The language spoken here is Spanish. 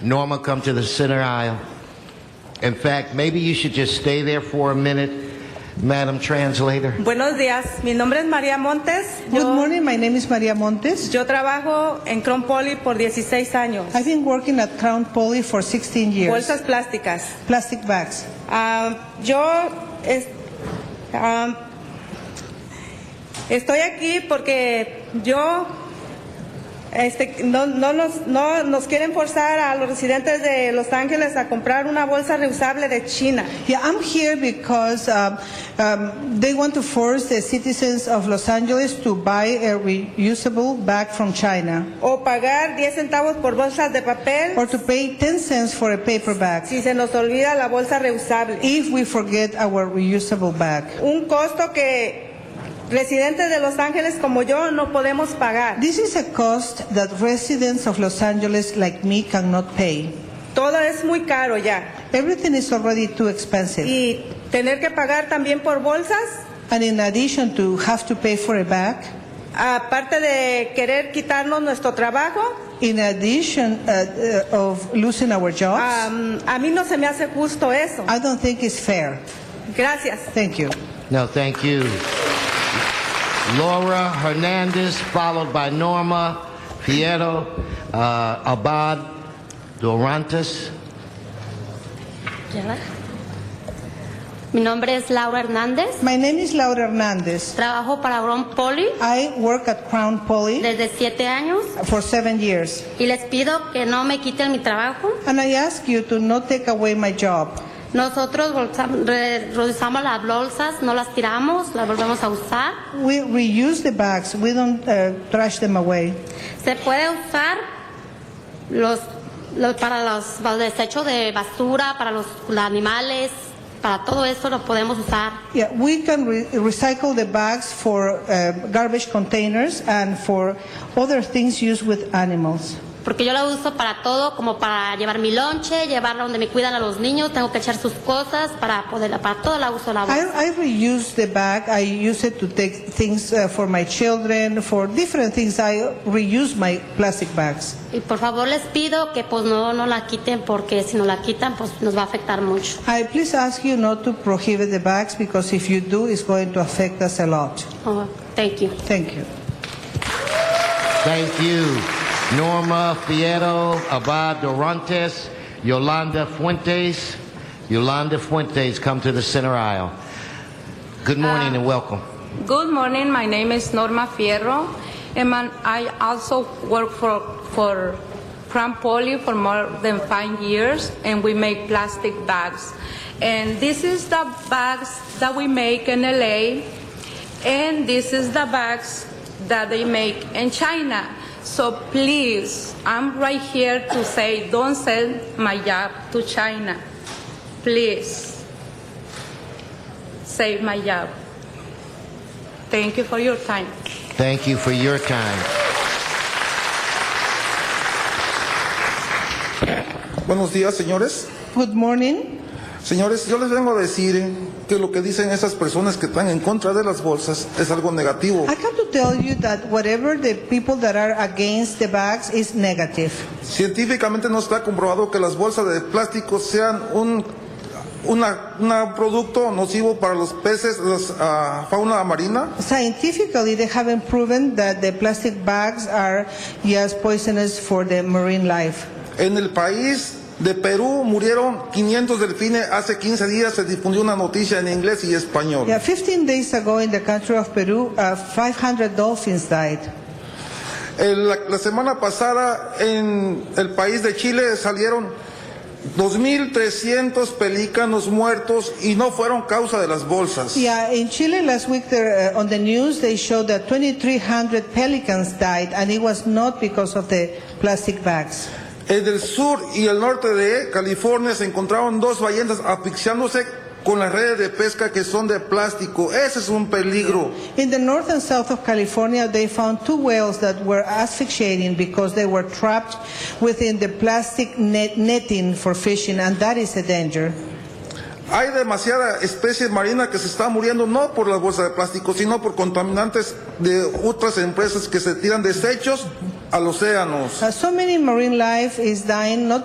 Norma, come to the center aisle. In fact, maybe you should just stay there for a minute, Madam Translator. Buenos días, mi nombre es María Montes. Good Yo, morning, my name is Maria Montes. yo trabajo en Crown Poly por 16 años. I've been working at Crown Poly for 16 years. Bolsas plásticas. Plastic bags. Ah, yo es- ah, estoy aquí porque yo este, no, no nos, no nos quieren forzar a los residentes de Los Ángeles a comprar una bolsa reusable de China. Yeah, I'm here because um, um, they want to force the citizens of Los Angeles to buy a reusable bag from China o pagar 10 centavos por bolsas de papel or to pay 10 cents for a paper bag si se nos olvida la bolsa reusable. if we forget our reusable bag. Un costo que residentes de Los Ángeles como yo no podemos pagar. This is a cost that residents of Los Angeles like me cannot pay. Todo es muy caro ya. Everything is already too expensive. Y tener que pagar también por bolsas, And in addition to have to pay for a bag, aparte de querer quitarnos nuestro trabajo, In addition uh, uh, of losing our jobs, am, a mí no se me hace justo eso. I don't think it's fair. Gracias. Thank you. No, thank you. Laura Hernandez, followed by Norma Pietro uh, Abad Dorantes. Ya. Mi nombre es Laura Hernández. My name is Laura Hernandez. Trabajo para Brown Poly I work at Crown Poly desde siete años for seven years, y les pido que no me quiten mi trabajo. and I ask you to not take away my job. Nosotros bolsa- re- reusamos las bolsas, no las tiramos, las volvemos a usar. We reuse the bags. We don't uh, trash them away. Se puede usar los, los- para los, para los desechos de basura, para los, los animales, para todo eso lo podemos usar. Yeah, we can re- recycle the bags for uh, garbage containers and for other things used with animals. Porque yo la uso para todo, como para llevar mi lonche, llevarla donde me cuidan a los niños, tengo que echar sus cosas para poderla, para todo la uso la bolsa. I, I reuse the bag. I use it to take things uh, for my children, for different things. I reuse my plastic bags. Y por favor les pido que pues no, no la quiten porque si no la quitan pues nos va a afectar mucho. I please ask you not to prohibit the bags because if you do, it's going to affect us a lot. Oh, thank you. Thank you. Thank you. Norma Pietro Abad Dorantes, Yolanda Fuentes. Yolanda Fuentes, come to the center aisle. Good morning and welcome. Good morning. My name is Norma Fierro, and man- I also work for for Crown Poly for more than five years, and we make plastic bags. And this is the bags that we make in LA, and this is the bags that they make in China. So please, I'm right here to say, don't send my job to China. Please, save my job. Thank you for your time. Thank you for your time. Buenos días, señores. Good morning. Señores, yo les vengo a decir que lo que dicen esas personas que están en contra de las bolsas es algo negativo. I come to tell you that whatever the people that are against the bags is negative. Científicamente no está comprobado que las bolsas de plástico sean un una, una producto nocivo para los peces, la fauna marina. Scientifically, they haven't proven that the plastic bags are yes poisonous for the marine life. En el país de Perú murieron 500 delfines. Hace 15 días se difundió una noticia en inglés y español. Yeah, 15 days ago in the country of Peru, uh, 500 dolphins died. El- la, la semana pasada en el país de Chile salieron 2.300 pelícanos muertos y no fueron causa de las bolsas. Yeah, in Chile last week there, uh, on the news they showed that 2,300 pelicans died, and it was not because of the plastic bags. En el sur y el norte de California se encontraron dos ballenas asfixiándose con las redes de pesca que son de plástico. Ese es un peligro. In the north and south of California, they found two whales that were asphyxiating because they were trapped within the plastic net- netting for fishing, and that is a danger. Hay demasiada especie marina que se está muriendo no por las bolsas de plástico, sino por contaminantes de otras empresas que se tiran desechos al océano. Uh, so many marine life is dying not